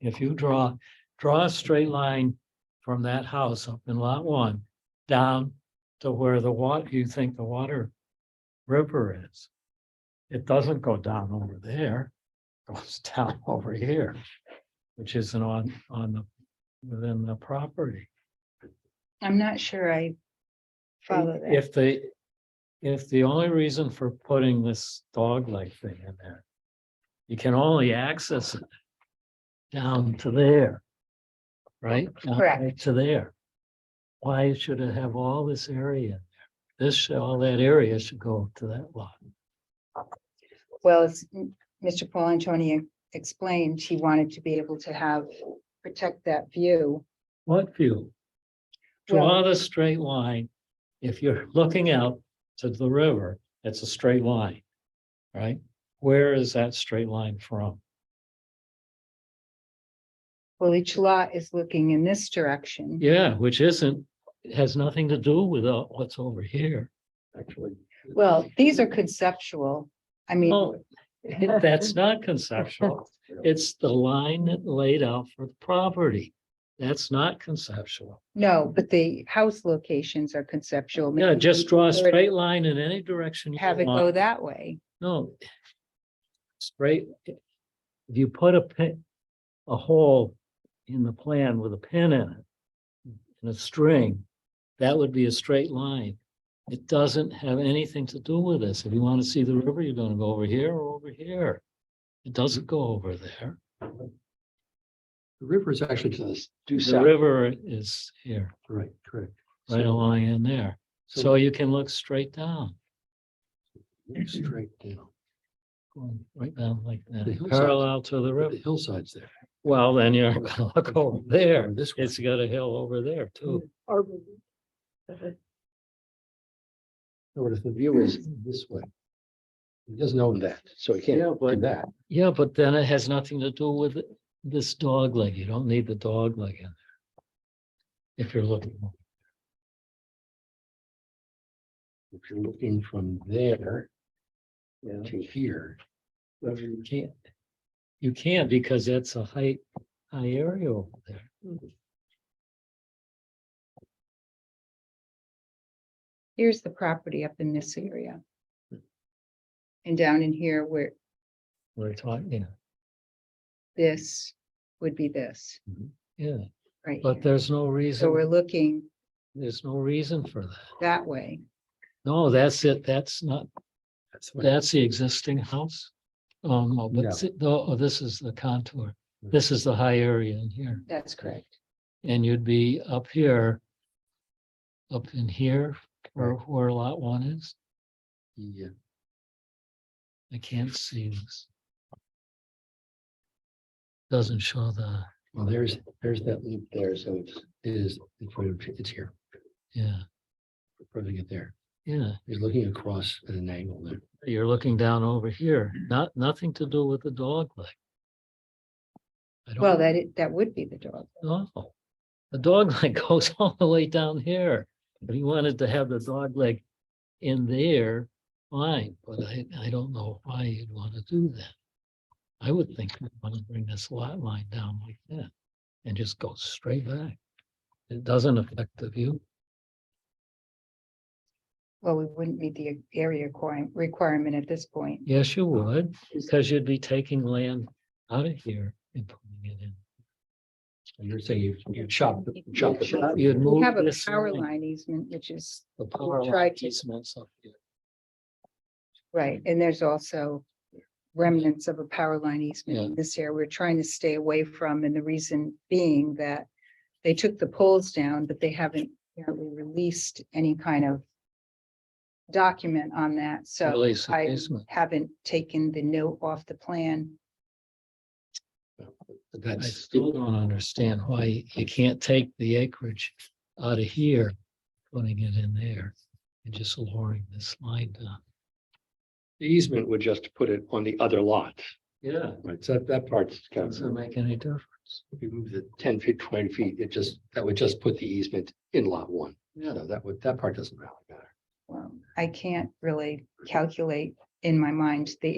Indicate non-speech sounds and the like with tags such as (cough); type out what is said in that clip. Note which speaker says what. Speaker 1: if you draw, draw a straight line from that house up in lot one down to where the water, you think the water river is. It doesn't go down over there, it goes (laughs) down over here, which isn't on, on the, within the property.
Speaker 2: I'm not sure I follow that.
Speaker 1: If they, if the only reason for putting this dog leg thing in there, you can only access it down to there. Right? Down
Speaker 2: Correct.
Speaker 1: right To there. Why should it have all this area? in there? This, should- all that area should go to that lot.
Speaker 2: Well, as m- Mr. Paul Antonio explained, he wanted to be able to have, protect that view.
Speaker 1: What view? Draw the straight line. If you're looking out to the river, it's a straight line. Right? Where is that straight line from?
Speaker 2: Well, each lot is looking in this direction.
Speaker 1: Yeah, which isn't, it has nothing to do with uh, what's over here,
Speaker 2: (laughs)
Speaker 1: actually.
Speaker 2: Well, these are conceptual. I mean,
Speaker 1: Oh, that's not conceptual. It's the line that laid out for the property. That's not conceptual.
Speaker 2: no, but the house locations are conceptual.
Speaker 1: Yeah,
Speaker 2: Maybe
Speaker 1: just draw a
Speaker 2: where it-
Speaker 1: straight line in any direction. you
Speaker 2: Have it
Speaker 1: want.
Speaker 2: go that way.
Speaker 1: No. Straight. If you put a pin, a hole in the plan with a pin in it. And a string, that would be a straight line. It doesn't have anything to do with this. If you want to see the river, you're gonna go over here or over here. It doesn't go over there.
Speaker 3: The river is actually to the due
Speaker 1: The
Speaker 3: south,
Speaker 1: river is here,
Speaker 3: right, correct.
Speaker 1: right
Speaker 3: So-
Speaker 1: along in there. So you can look straight down,
Speaker 3: look Straight down,
Speaker 1: going right down like
Speaker 3: The
Speaker 1: that,
Speaker 3: hillside.
Speaker 1: parallel to the
Speaker 3: the
Speaker 1: river.
Speaker 3: hillside's there.
Speaker 1: Well, then you're gonna look over there.
Speaker 3: Or This way.
Speaker 1: It's got a hill over there too.
Speaker 3: or if the view is this way. He doesn't own that, so he
Speaker 1: Yeah,
Speaker 3: can't
Speaker 1: but-
Speaker 3: do that.
Speaker 1: Yeah, but then it has nothing to do with this dog leg. You don't need the dog leg in there. If you're looking,
Speaker 3: If you're looking from there
Speaker 1: yeah,
Speaker 3: to here,
Speaker 1: you can't. You can't because that's a high, high area over there.
Speaker 2: Here's the property up in this area.
Speaker 1: Hmm.
Speaker 2: And down in here where
Speaker 1: We're talking,
Speaker 2: this would be this,
Speaker 1: yeah,
Speaker 2: right?
Speaker 1: but
Speaker 2: here.
Speaker 1: there's no
Speaker 2: So we're
Speaker 1: reason,
Speaker 2: looking
Speaker 1: there's no reason for that.
Speaker 2: that way.
Speaker 1: No, that's it. That's not,
Speaker 3: that's what
Speaker 1: that's the existing house. Oh, no, but see- no, oh, this is the contour. This is the high area in here.
Speaker 2: That's correct.
Speaker 1: And you'd be up here. Up in here, where, where lot one is,
Speaker 3: the, uh,
Speaker 1: I can't see this. Doesn't show the,
Speaker 3: well, there's, there's that loop there, so it's, it is, in front of- it's here,
Speaker 1: yeah,
Speaker 3: probably it there.
Speaker 1: yeah,
Speaker 3: He's looking across at an angle there.
Speaker 1: you're looking down over here, not, nothing to do with the dog leg. I don't
Speaker 2: Well, that, it that would be the dog.
Speaker 1: know. The dog (laughs) leg goes all the way down here, if you wanted to have the dog leg in there, fine, but I, I don't know why you'd want to do that. I would think you'd want to bring this lot line down like that and just go straight back. It doesn't affect the view.
Speaker 2: Well, we wouldn't meet the area requirement, requirement at this point.
Speaker 1: Yes, you would, because you'd be taking land out of here and putting it in.
Speaker 3: And you're saying you, you chop, the- chop. the
Speaker 2: Chop.
Speaker 3: property.
Speaker 1: You'd
Speaker 2: We
Speaker 1: move
Speaker 2: have a
Speaker 1: this
Speaker 2: power
Speaker 1: line,
Speaker 2: line easement, which is,
Speaker 1: The power line
Speaker 2: tried to-
Speaker 1: easements up here.
Speaker 2: right, and there's also remnants of a power line easement
Speaker 1: Yeah.
Speaker 2: in this area we're trying to stay away from, and the reason being that they took the poles down, but they haven't apparently released any kind of document on that, so
Speaker 1: Release the
Speaker 2: I
Speaker 1: easement.
Speaker 2: haven't taken the note off the plan.
Speaker 1: I
Speaker 3: That's.
Speaker 1: still don't understand why you can't take the acreage out of here, putting it in there and just lowering this line down.
Speaker 3: The easement would just put it on the other lot,
Speaker 1: Yeah.
Speaker 3: right? So that- that part's kind
Speaker 1: Doesn't
Speaker 3: of,
Speaker 1: make any difference.
Speaker 3: if you move the ten feet, twenty feet, it just, that would just put the easement in lot one.
Speaker 1: Yeah.
Speaker 3: So that would, that part doesn't really matter.
Speaker 2: Well, I can't really calculate in my mind the